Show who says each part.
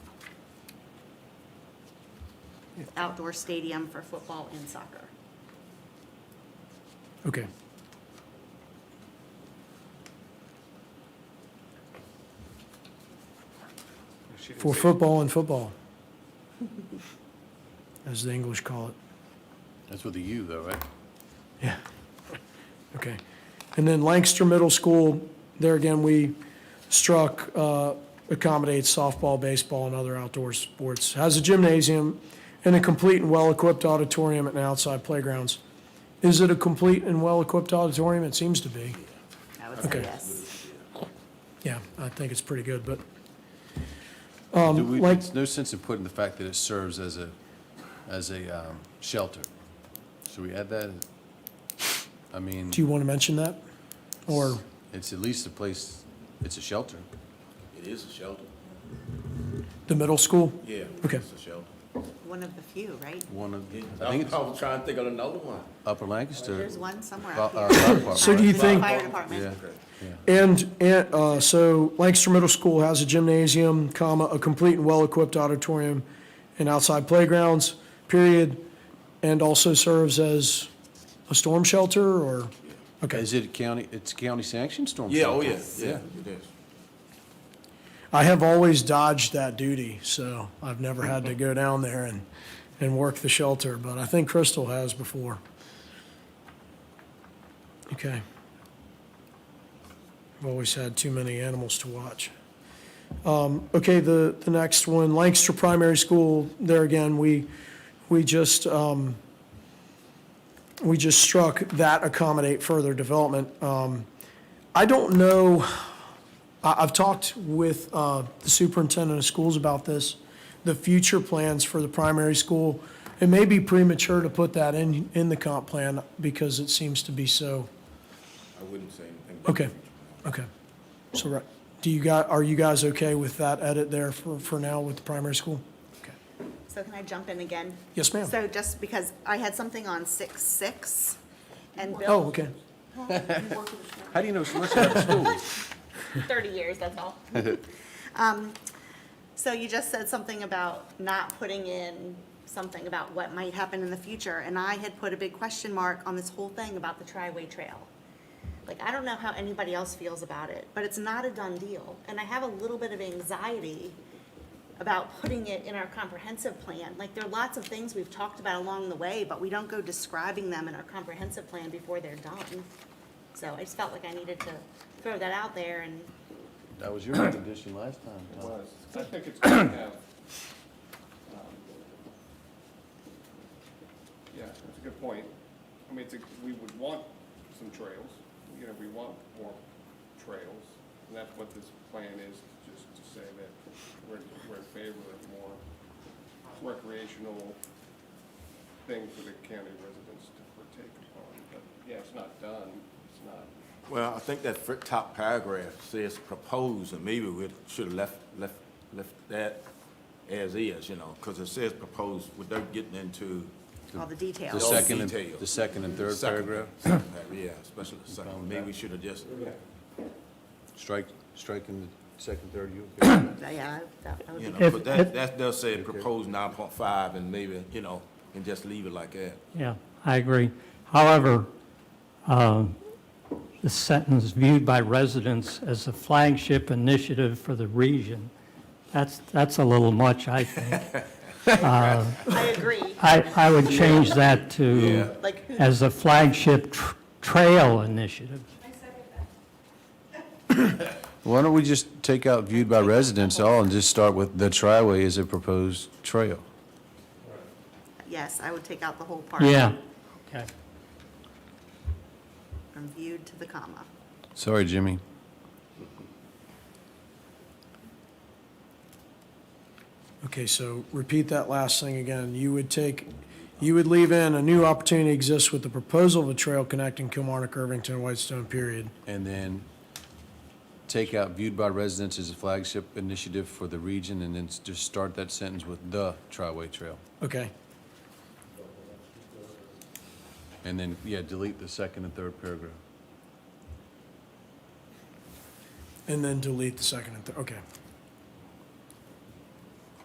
Speaker 1: outdoor stadium for football and soccer.
Speaker 2: Okay.
Speaker 3: She didn't
Speaker 2: For
Speaker 3: say-
Speaker 2: football and football, as the English call it.
Speaker 4: That's with a U though, right?
Speaker 2: Yeah. Okay. And then Lancaster Middle School, there again, we struck, uh, accommodates softball, baseball, and other outdoor sports. Has a gymnasium and a complete and well-equipped auditorium and outside playgrounds. Is it a complete and well-equipped auditorium? It seems to be.
Speaker 1: I would say
Speaker 2: Okay.
Speaker 1: yes.
Speaker 2: Yeah, I think it's pretty good, but
Speaker 4: Do we,
Speaker 2: Um, like-
Speaker 4: it's no sense in putting the fact that it serves as a, as a um, shelter. Should we add that? I mean,
Speaker 2: do you want to mention that? Or,
Speaker 4: it's at least a place, it's a shelter.
Speaker 5: It is a shelter.
Speaker 2: the middle school?
Speaker 5: Yeah.
Speaker 2: Okay.
Speaker 5: It's a shelter.
Speaker 1: One of the few, right?
Speaker 4: One of, I
Speaker 5: I
Speaker 4: think it's
Speaker 5: was trying to think of another one.
Speaker 4: Upper Lancaster.
Speaker 1: There's one somewhere
Speaker 4: uh,
Speaker 1: out
Speaker 4: uh,
Speaker 1: here.
Speaker 4: Park,
Speaker 2: So do
Speaker 4: right?
Speaker 2: you think?
Speaker 1: Fire
Speaker 4: Yeah,
Speaker 1: department.
Speaker 4: yeah.
Speaker 2: And, and, uh, so Lancaster Middle School has a gymnasium, comma, a complete and well-equipped auditorium and outside playgrounds, period, and also serves as a storm shelter or, okay.
Speaker 4: Is it county, it's county sanctioned storm
Speaker 5: Yeah,
Speaker 4: shelter?
Speaker 5: oh, yeah, yeah, it is.
Speaker 2: I have always dodged that duty, so I've never had to go down there and, and work the shelter, but I think Crystal has before. Okay. I've always had too many animals to watch. Um, okay, the, the next one, Lancaster Primary School, there again, we, we just, um, we just struck that accommodate further development. Um, I don't know. I, I've talked with uh, the superintendent of schools about this, the future plans for the primary school. It may be premature to put that in, in the comp plan because it seems to be so,
Speaker 5: I wouldn't say anything. about
Speaker 2: okay,
Speaker 5: it.
Speaker 2: okay. So, right, do you guys, are you guys okay with that edit there for, for now with the primary school? Okay.
Speaker 1: So can I jump in again?
Speaker 2: Yes, ma'am.
Speaker 1: So just because I had something on six, six, and Bill.
Speaker 2: Oh, okay,
Speaker 4: How do you know so much about schools?
Speaker 6: 30 years, that's all.
Speaker 1: Um, So you just said something about not putting in something about what might happen in the future, and I had put a big question mark on this whole thing about the Triway Trail. Like, I don't know how anybody else feels about it, but it's not a done deal, and I have a little bit of anxiety about putting it in our comprehensive plan. Like, there are lots of things we've talked about along the way, but we don't go describing them in our comprehensive plan before they're done. So I just felt like I needed to throw that out there and
Speaker 4: That was your recommendation last time, Tom.
Speaker 3: I think it's good to have. um, Yeah, that's a good point. I mean, it's, a- we would want some trails, you know, we want more trails. And that's what this plan is, just to say that we're, we're in favor of more recreational things for the county residents to partake upon. But, yeah, it's not done, it's not,
Speaker 5: Well, I think that fir- top paragraph says proposed, and maybe we should have left, left, left that as is, you know, because it says proposed without getting into
Speaker 1: all the details.
Speaker 4: The second, and-
Speaker 5: detail.
Speaker 4: the second and third
Speaker 5: second-
Speaker 4: paragraph,
Speaker 5: second paragraph, Yeah, especially the second, maybe we should have just,
Speaker 4: strike, striking the second, third, you okay?
Speaker 1: Yeah, that that would be
Speaker 5: you know,
Speaker 7: If-
Speaker 5: but that,
Speaker 7: if-
Speaker 5: that does say proposed nine point five, and maybe, you know, and just leave it like that.
Speaker 7: Yeah, I agree. However, uh, the sentence viewed by residents as a flagship initiative for the region, that's, that's a little much, I think.
Speaker 1: I agree.
Speaker 7: I, I would change that to
Speaker 1: Like, who-
Speaker 7: as a flagship tr- trail initiative.
Speaker 4: Why don't we just take out viewed by residents all and just start with the triway is a proposed trail?
Speaker 1: yes, I would take out the whole part.
Speaker 7: Yeah. Okay.
Speaker 1: From viewed to the comma.
Speaker 4: Sorry, Jimmy.
Speaker 2: okay, so repeat that last thing again. You would take, you would leave in a new opportunity exists with the proposal of a trail connecting Kilmarnock, Irvington, and Whitestone, period.
Speaker 4: And then take out viewed by residents as a flagship initiative for the region and then s- just start that sentence with the triway trail.
Speaker 2: Okay,
Speaker 4: And then, yeah, delete the second and third paragraph.
Speaker 2: and then delete the second and third, okay.